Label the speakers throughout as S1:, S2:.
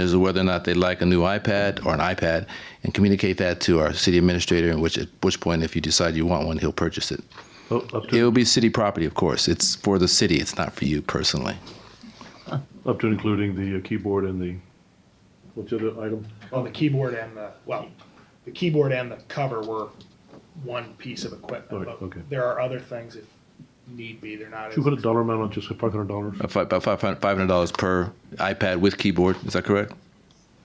S1: is whether or not they'd like a new iPad or an iPad, and communicate that to our city administrator. At which at which point, if you decide you want one, he'll purchase it.
S2: Oh, Up
S1: It
S2: to,
S1: will be city property, of course. It's for the city. It's not for you personally.
S2: up to including the uh, keyboard and the, what's the other item?
S3: Well, the keyboard and the, well, the keyboard and the cover were one piece of equipment.
S2: Right,
S3: but
S2: okay.
S3: There are other things if need be, they're not as.
S2: Two hundred dollar amount on just five hundred dollars?
S1: About fi- About five hundred- $500 per iPad with keyboard. Is that correct?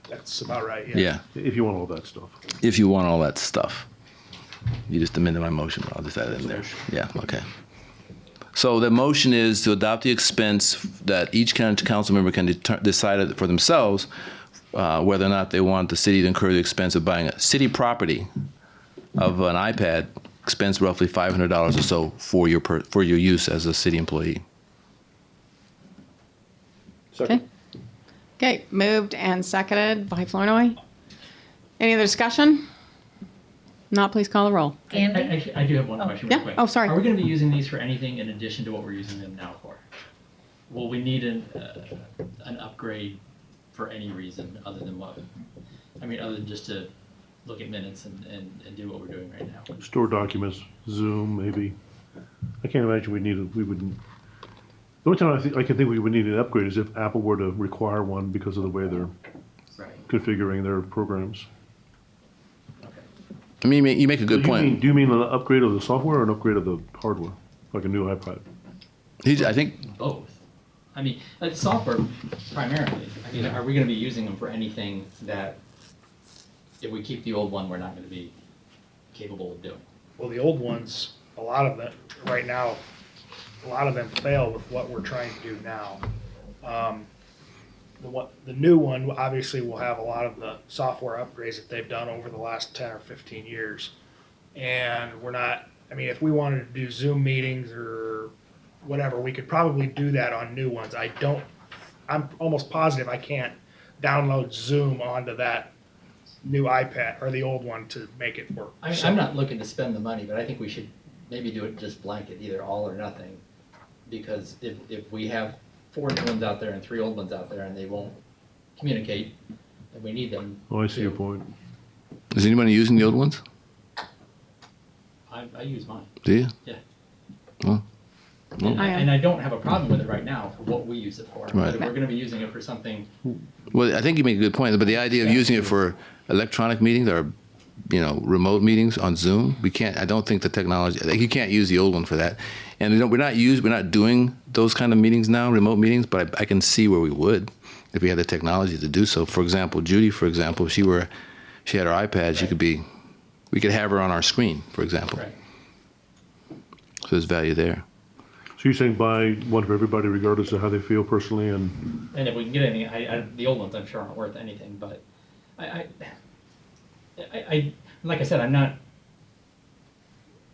S3: That's about right, yeah.
S1: Yeah.
S2: If you want all that stuff.
S1: If you want all that stuff. You just amended my motion, but I'll just add it in there. Yeah, okay. So the motion is to adopt the expense that each county council member can deter- decide for themselves uh, whether or not they want the city to incur the expense of buying a city property of an iPad, expense roughly five hundred dollars or so for your per, for your use as a city employee.
S4: Okay. Okay, moved and seconded by Flornoy. Any other discussion? Not, please call the roll.
S5: Andy?
S6: I- Actually, I do have one question. real
S4: yeah.
S6: quick.
S4: Oh, sorry.
S6: Are we going to be using these for anything in addition to what we're using them now for? Will we need an, uh, an upgrade for any reason other than what? I mean, other than just to look at minutes and, and, and do what we're doing right now?
S2: Store documents, Zoom, maybe. I can't imagine we need, a- we would, the only time I think, I can think we would need an upgrade is if Apple were to require one because of the way they're
S6: Right.
S2: configuring their programs.
S6: Okay.
S1: I mean, you make- you make a
S2: Do
S1: good
S2: you mean-
S1: point.
S2: Do you mean an upgrade of the software or an upgrade of the hardware, like a new iPad?
S1: He, I think
S6: Both. I mean, uh, software primarily. I mean, are we going to be using them for anything that if we keep the old one, we're not going to be capable of doing?
S3: Well, the old ones, a lot of them, right now, a lot of them fail with what we're trying to do now. Um, The what, the new one, obviously, will have a lot of the software upgrades that they've done over the last ten or fifteen years. And we're not, I mean, if we wanted to do Zoom meetings or whatever, we could probably do that on new ones. I don't, I'm almost positive I can't download Zoom onto that new iPad or the old one to make it work.
S6: I mean,
S3: So-
S6: I'm not looking to spend the money, but I think we should maybe do it just blanket, either all or nothing. Because if, if we have four new ones out there and three old ones out there and they won't communicate, and we need them.
S2: Oh, I see your
S6: to-
S2: point.
S1: is anybody using the old ones?
S6: I, I use mine.
S1: Do you?
S2: Oh.
S6: And I-
S4: I am.
S6: and I don't have a problem with it right now for what we use it for. But if
S1: Right.
S6: we're gonna be using it for something,
S1: Well, I think you make a good point, but the idea of using it for electronic meetings or, you know, remote meetings on Zoom, we can't. I don't think the technology. Like you can't use the old one for that, and you know, we're not used. We're not doing those kind of meetings now, remote meetings. But I, I can see where we would if we had the technology to do so. For example, Judy, for example, if she were, she had her iPad. She could be, we could have her on our screen, for example.
S6: right,
S1: So there's value there.
S2: So you're saying buy one for everybody regardless of how they feel personally and
S6: and if we can get any, I, I, the old ones I'm sure aren't worth anything, but I, I, I, I, like I said, I'm not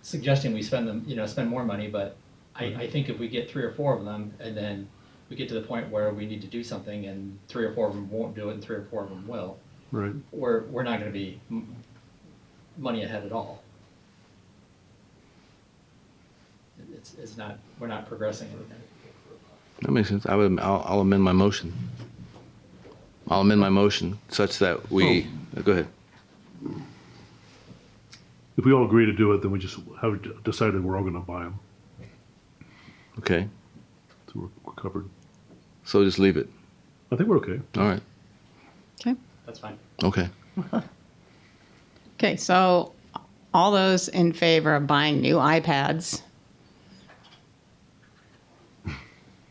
S6: suggesting we spend them, you know, spend more money, but I, I think if we get three or four of them and then we get to the point where we need to do something and three or four of them won't do it and three or four of them will,
S2: Right.
S6: we're, we're not gonna be m- money ahead at all. It's, it's not, we're not progressing anything.
S1: That makes sense. I would. I'll, I'll amend my motion. I'll amend my motion such that we. uh, Go ahead.
S2: If we all agree to do it, then we just have decided we're all going to buy them.
S1: Okay.
S2: So we're- we're covered.
S1: So just leave it.
S2: I think we're okay.
S1: All right.
S4: Okay.
S6: That's fine.
S1: Okay.
S4: Okay, so all those in favor of buying new iPads?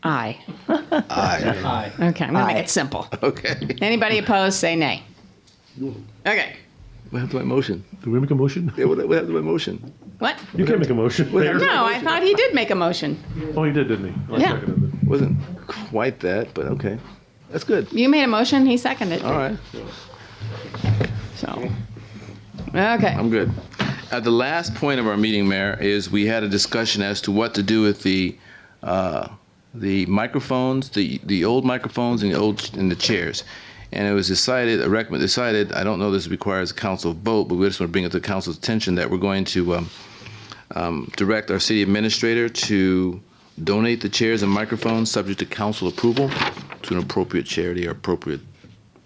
S4: Aye.
S6: Aye.
S4: Okay, I'm going to make it simple.
S1: Okay.
S4: Anybody opposed, say nay. Okay,
S1: What happened to my motion?
S2: Do we make a motion?
S1: Yeah, what, what happened to my motion?
S4: what?
S2: You can't make a motion. Mayor.
S4: No, I thought he did make a motion.
S2: Oh, you did, didn't he? I
S4: Yeah.
S2: seconded it.
S1: Wasn't quite that, but okay. That's good.
S4: You made a motion, he seconded.
S1: All right.
S4: So, okay.
S1: I'm good. At the last point of our meeting, Mayor, is we had a discussion as to what to do with the uh, the microphones, the the old microphones and the old and the chairs. And it was decided, a recommend decided. I don't know this requires a council vote, but we just want to bring it to the council's attention that we're going to um, um, direct our city administrator to donate the chairs and microphones, subject to council approval, to an appropriate charity or appropriate